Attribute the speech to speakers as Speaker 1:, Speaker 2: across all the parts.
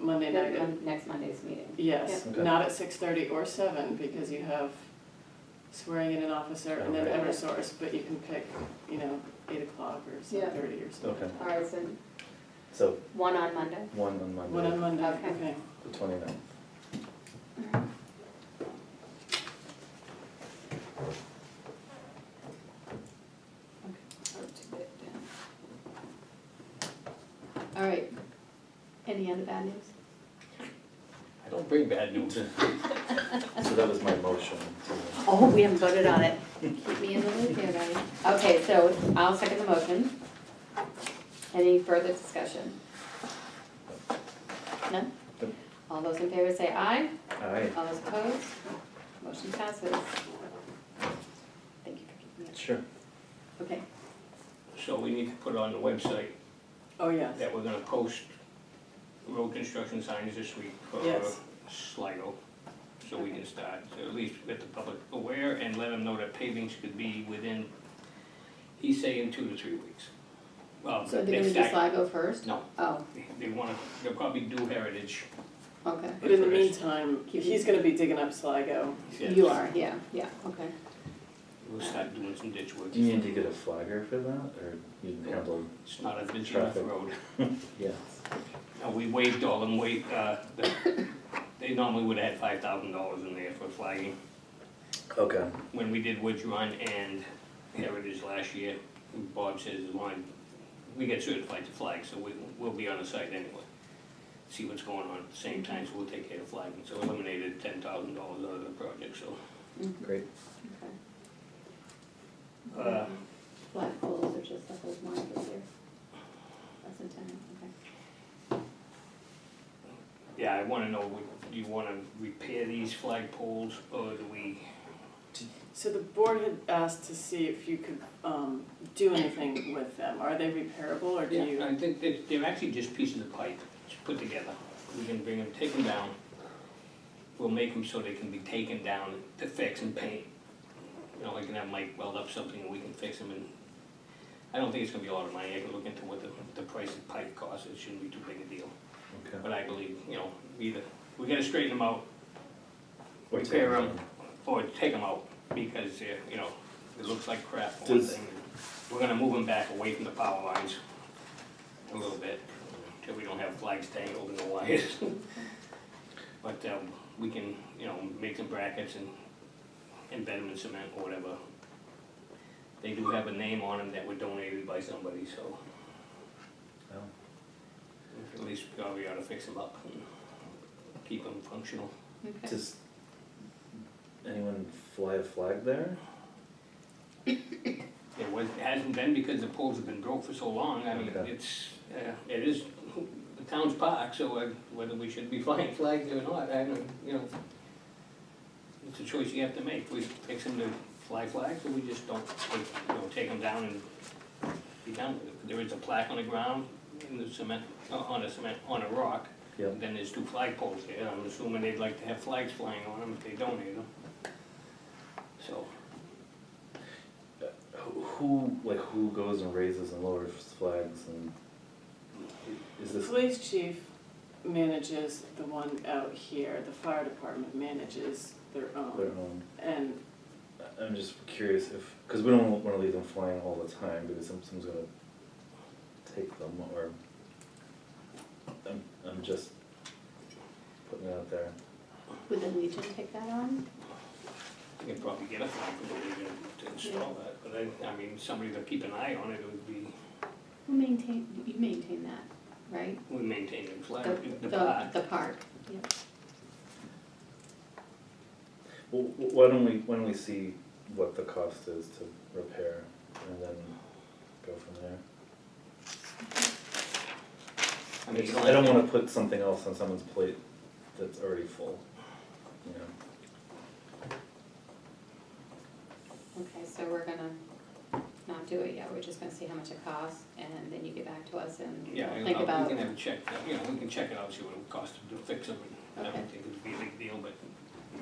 Speaker 1: Monday
Speaker 2: the
Speaker 1: night,
Speaker 2: mon- next Monday's meeting.
Speaker 1: yes,
Speaker 3: Yeah. Okay.
Speaker 1: not at six thirty or seven, because you have swearing in an officer and then
Speaker 3: Okay.
Speaker 1: Eversource, but you can pick, you know, eight o'clock or seven thirty or something.
Speaker 3: Okay,
Speaker 2: All right, so
Speaker 3: so
Speaker 2: one on Monday.
Speaker 3: one on
Speaker 1: One on
Speaker 3: Monday,
Speaker 1: Monday,
Speaker 2: Okay.
Speaker 1: okay.
Speaker 3: the twenty-ninth.
Speaker 2: All right. Any other bad news?
Speaker 3: I don't bring bad news. So that was my motion to,
Speaker 2: Oh, we haven't voted on it. Keep me in the loop here, buddy. Okay, so I'll second the motion. Any further discussion? None?
Speaker 3: Nope.
Speaker 2: All those in favor say aye.
Speaker 3: all right,
Speaker 2: All those opposed? Motion passes. Thank you for keeping it.
Speaker 3: sure.
Speaker 2: Okay.
Speaker 4: So we need to put on the website
Speaker 1: Oh, yes,
Speaker 4: that we're gonna post road construction signs this week for
Speaker 1: Yes.
Speaker 4: Sligo. So we can start, to at least get the public aware and let them know that pavings could be within, he's saying two to three weeks. Well,
Speaker 2: So they're
Speaker 4: next
Speaker 2: gonna do
Speaker 4: time,
Speaker 2: Sligo first?
Speaker 4: No.
Speaker 2: Oh,
Speaker 4: they wanna, they'll probably do Heritage.
Speaker 2: okay.
Speaker 1: but in the
Speaker 4: first.
Speaker 1: meantime, he's gonna be digging up Sligo.
Speaker 4: He said
Speaker 2: You are, yeah, yeah, okay.
Speaker 4: We'll start doing some ditch work.
Speaker 3: Do you need to get a flagger for that, or you can handle,
Speaker 4: It's not a busy enough
Speaker 3: Traffic.
Speaker 4: road.
Speaker 3: yeah,
Speaker 4: Uh, we waived all them wait, uh, the- they normally would have had five thousand dollars in there for flagging.
Speaker 3: okay,
Speaker 4: when we did Woods Run and Heritage last year, Bob says, as long, we get certified to flag, so we, we'll be on the site anyway. See what's going on at the same time, so we'll take care of flagging, so eliminated ten thousand dollars out of the project, so.
Speaker 3: great.
Speaker 2: Mm-hmm, Okay.
Speaker 4: Uh,
Speaker 2: Mm-hmm. Black poles are just like those ones right here. That's in town, okay.
Speaker 4: yeah, I wanna know, would- do you wanna repair these flag poles, or do we,
Speaker 1: So the board had asked to see if you could, um, do anything with them, are they repairable, or do you?
Speaker 4: I think they're, they're actually just pieces of pipe, just put together. We can bring them, take them down, we'll make them so they can be taken down to fix and paint. You know, I can have Mike weld up something and we can fix them and, I don't think it's gonna be a lot of money, I can look into what the, the price of pipe costs, it shouldn't be too big a deal.
Speaker 3: Okay.
Speaker 4: But I believe, you know, either, we gotta straighten them out
Speaker 3: Or take
Speaker 4: Repair
Speaker 3: it
Speaker 4: 'em.
Speaker 3: down.
Speaker 4: or take them out, because, they're, you know, it looks like crap for one
Speaker 3: Does-
Speaker 4: thing. We're gonna move them back away from the power lines a little bit, till we don't have flags tangled in the wires. But, um, we can, you know, make some brackets and embed them in cement or whatever. They do have a name on them that were donated by somebody, so
Speaker 3: Oh,
Speaker 4: at least we ought- we ought to fix them up and keep them functional.
Speaker 2: Okay.
Speaker 3: Does anyone fly a flag there?
Speaker 4: It was, it hasn't been because the poles have been broke for so long, I mean,
Speaker 3: Okay.
Speaker 4: it's, uh, it is the town's park, so uh, whether we should be flying flags or not, I don't, you know. It's a choice you have to make, we fix them to fly flags, or we just don't, take- you know, take them down and be done with it. There is a plaque on the ground, in the cement, uh, on a cement, on a rock,
Speaker 3: Yep.
Speaker 4: then there's two flag poles there, I'm assuming they'd like to have flags flying on them if they donate them. So,
Speaker 3: Who- Who, like, who goes and raises and lowers flags and is
Speaker 1: The
Speaker 3: this,
Speaker 1: police chief manages the one out here, the fire department manages their
Speaker 3: their
Speaker 1: own,
Speaker 3: own?
Speaker 1: and,
Speaker 3: I- I'm just curious if, because we don't want to leave them flying all the time because some- someone's gonna take them or. I'm, I'm just putting it out there.
Speaker 2: Would the Legion take that on?
Speaker 4: You can probably get a flag committee to to install that, but I, I mean, somebody to keep an eye on it would be,
Speaker 2: Who maintain, you maintain that, right?
Speaker 4: we maintain the flag,
Speaker 2: The-
Speaker 4: Uh, the park.
Speaker 2: The park, yeah.
Speaker 3: Well, wh- why don't we, why don't we see what the cost is to repair and then go from there?
Speaker 4: I mean, you
Speaker 3: I don't want to put something else on someone's plate that's already full, you know?
Speaker 2: Okay, so we're gonna not do it yet, we're just gonna see how much it costs, and then you get back to us and
Speaker 4: Yeah,
Speaker 2: we'll
Speaker 4: I'll-
Speaker 2: think
Speaker 4: I'll-
Speaker 2: about.
Speaker 4: we can have a check, you know, we can check it out, see what it would cost to do- fix them, and I don't
Speaker 2: Okay.
Speaker 4: think it'd be a big deal, but,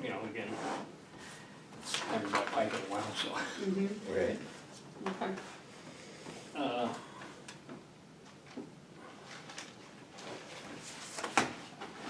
Speaker 4: you know, again, I haven't bought pipe in a while, so.
Speaker 2: Mhm, okay.
Speaker 3: Right.
Speaker 4: Uh,